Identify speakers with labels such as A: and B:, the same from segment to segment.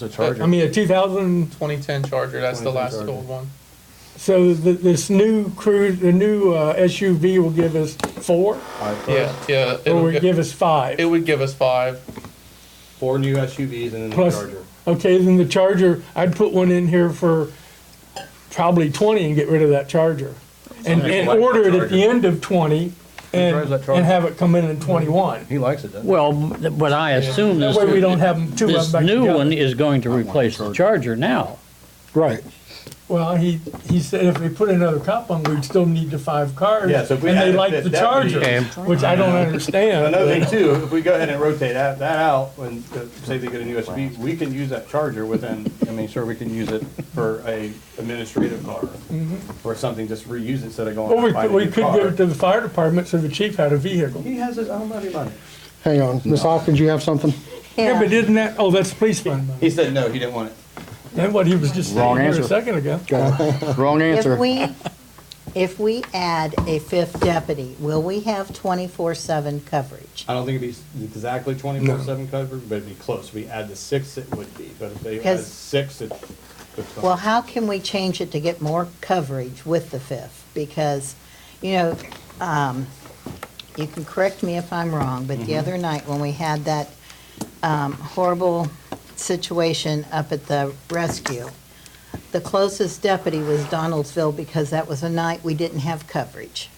A: That's a
B: I mean, a 2000,
C: 2010 Charger, that's the
A: 2010
C: last
A: Charger.
C: old one.
B: so th this new cruise, the new uh, SUV will give us four,
C: Yeah, yeah.
B: or
C: it'll
B: will
C: gi-
B: it give us five?
C: It would give us five.
A: Four new SUVs and then a
B: Plus-
A: Charger.
B: Okay, then the Charger, I'd put one in here for probably twenty and get rid of that Charger. And,
A: Some people
B: and
A: like that
B: order it at the
A: Charger.
B: end of twenty and,
A: drives that Charger?
B: and have it come in in twenty-one.
A: He likes it, doesn't he?
D: Well, but I assume
B: That
D: this,
B: way we don't have 'em- two of
D: this
B: them back
D: new one
B: together.
D: is going to replace the Charger now.
E: Right.
B: Well, he, he said if we put another cop on, we'd still need the five cars.
A: Yeah, so if we
B: And they
A: added
B: like
A: fifth,
B: the
A: that would be-
B: Charger,
D: Okay.
B: which I don't understand.
A: Another thing too, if we go ahead and rotate that, that out and uh, say they get a new SUV, we can use that Charger within, I mean, sure, we can use it for a administrative car. Or something, just reuse it instead of
B: Mm-hmm. Well,
A: going
B: we
A: and buying
B: could,
A: a
B: we
A: new
B: could give
A: car.
B: it to the fire department so the chief had a vehicle.
A: He has his own money money.
E: Hang on. Ms. Hawkins, you have something?
B: Yeah, but isn't that, oh, that's police fund money.
A: He said no, he didn't want it.
B: That's what he was just saying
E: Wrong
B: here a
E: answer.
B: second ago.
E: Wrong answer.
F: If we, if we add a fifth deputy, will we have twenty-four seven coverage?
A: I don't think it'd be exactly twenty-four seven coverage, but it'd be close. We add the six, it would be, but if they add
F: 'Cause-
A: six, it. it's
F: Well, how can we change it to get more coverage with the fifth? Because, you know, um, you can correct me if I'm wrong, but
B: Mm-hmm.
F: the other night when we had that, um, horrible situation up at the rescue, the closest deputy was Donaldsville because that was a night we didn't have coverage.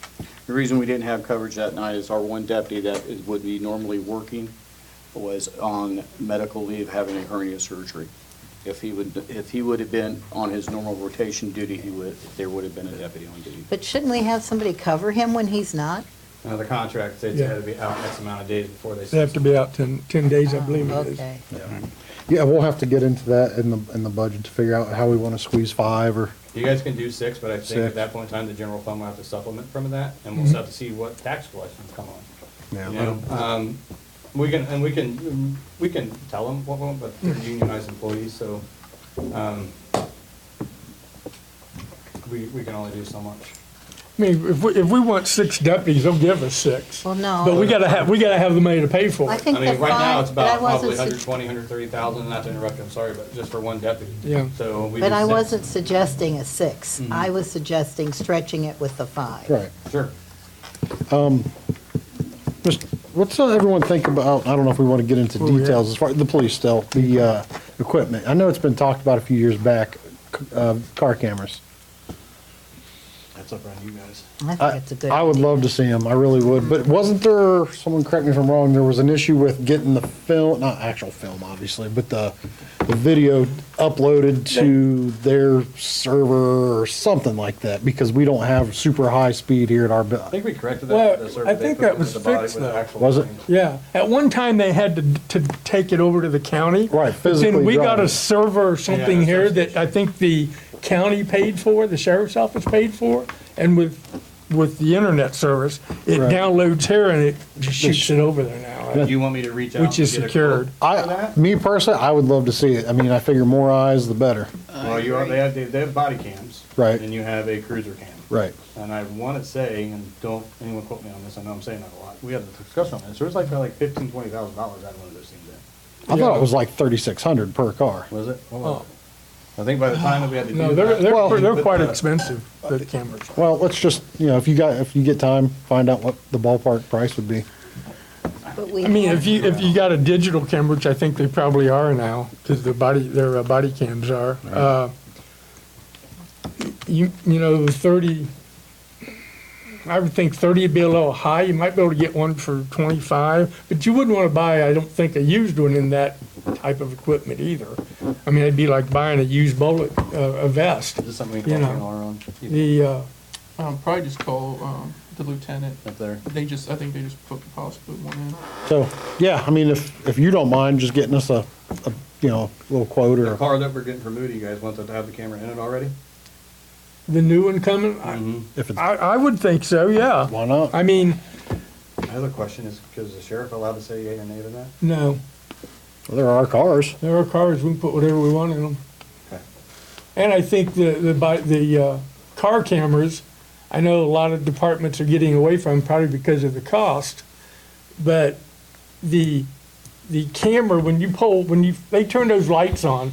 G: The reason we didn't have coverage that night is our one deputy that is- would be normally working was on medical leave having a hernia surgery. If he would, if he would have been on his normal rotation duty, he would, there would have been a deputy on duty.
F: But shouldn't we have somebody cover him when he's not?
A: Now, the contract says
B: Yeah.
A: it had to be out X amount of days before they.
B: They have to be out ten, ten days, I believe it is.
F: Okay.
E: Yeah, we'll have to get into that in the, in the budget to figure out how we want to squeeze five or,
A: You guys can do six, but I think at
E: Six.
A: that point in time, the general fund will have to supplement from that, and
B: Mm-hmm.
A: we'll just have to see what tax collections come on. You
E: yeah.
A: know, um, we can, and we can, mm, we can tell them what, we want, but
B: Mm-hmm.
A: they're unionized employees, so, um, we, we can only do so much.
B: I mean, if we, if we want six deputies, they'll give us six.
F: Well, no.
B: But we gotta have, we gotta have the money to pay for
F: I
B: it.
F: think
A: I
F: the
A: mean, right now, it's
F: five, but I
A: about probably
F: wasn't,
A: hundred
F: su-
A: twenty, hundred thirty thousand, not to interrupt, you, I'm sorry, but just for one deputy.
B: Yeah.
A: So we.
F: but
A: do six.
F: I
A: Mm-hmm.
F: wasn't suggesting a six. I was suggesting stretching it with the five.
E: Right.
A: Sure.
E: Just, what's uh, everyone think about, I don't know if we want to get into
B: Where we at?
E: details as far, the police still, the, uh, equipment. I know it's been talked about a few years back, c- uh, car cameras.
A: That's up around you guys.
F: I
E: I
F: think it's a good.
E: I would
F: idea.
E: love to see them, I really would, but wasn't there, someone correct me if I'm wrong, there was an issue with getting the film, not actual film, obviously, but the, the video uploaded to their server or something like that, because we don't have super high speed here at our, bu-
A: I think we corrected
B: Well,
A: that. the survey
B: I think
A: they put
B: that was
A: into the body
B: fixed,
A: with the
B: though.
A: actual
E: Was it?
A: thing.
B: Yeah, at one time they had to, to take it over to the county.
E: Right,
B: But
E: physically
B: then we got
E: drive
B: a
E: it.
B: server or something
A: Yeah,
B: here
A: that's-
B: that I think the county paid for, the sheriff's office paid for, and with, with the internet service, it
E: Right.
B: downloads here and it just shoots it over there now, right?
A: Do you want me to reach out? and
B: which is
A: get a quote?
B: secured.
E: I,
A: Mm-hmm.
E: me personally, I would love to see it. I mean, I figure more eyes, the better.
A: Well, you are, they have, they have body cams.
E: Right.
A: And you have a cruiser cam.
E: Right.
A: And I want to say, and don't anyone quote me on this, I know I'm saying that a lot, we had a discussion on this, there was like, probably like fifteen, twenty thousand dollars out of one of those things then.
E: I thought it was like thirty-six hundred per car.
A: Was it? What was it? I think by the time that we had to do
B: Oh. No, they're,
A: that.
B: they're, they're
A: but
B: quite
E: uh,
A: the-
B: expensive, the cameras.
E: Well, let's just, you know, if you got, if you get time, find out what the ballpark price would be.
F: But we
B: I mean,
F: have-
B: if you, if you got a digital camera, which I think they probably are now, because their body, their uh, body cams are, uh, you, you know, the thirty, I would think thirty would be a little high, you might be able to get one for twenty-five, but you wouldn't want to buy, I don't think, a used one in that type of equipment either. I mean, it'd be like buying a used bullet, uh, a vest,
A: Is this something we
B: you
A: can call
B: know.
A: Taylor on,
B: the, uh,
C: Um, probably just call um, the lieutenant.
A: up there?
C: They just, I think they just put the possible one in.
E: So, yeah, I mean, if, if you don't mind just getting us a, a, you know, little quote
A: The
E: or,
A: car that we're getting from Moody, you guys want that to have the camera in it already?
B: the new one coming, I,
E: if it's,
B: I I would think so, yeah.
E: why not?
B: I mean,
A: Another question is, is the sheriff allowed to say yea or nay to that?
B: no.
E: There are cars.
B: There are cars, we can put whatever we want in them.
A: Okay.
B: And I think the, the, bi- the, uh, car cameras, I know a lot of departments are getting away from probably because of the cost, but the the camera, when you pull, when you, they turn those lights on,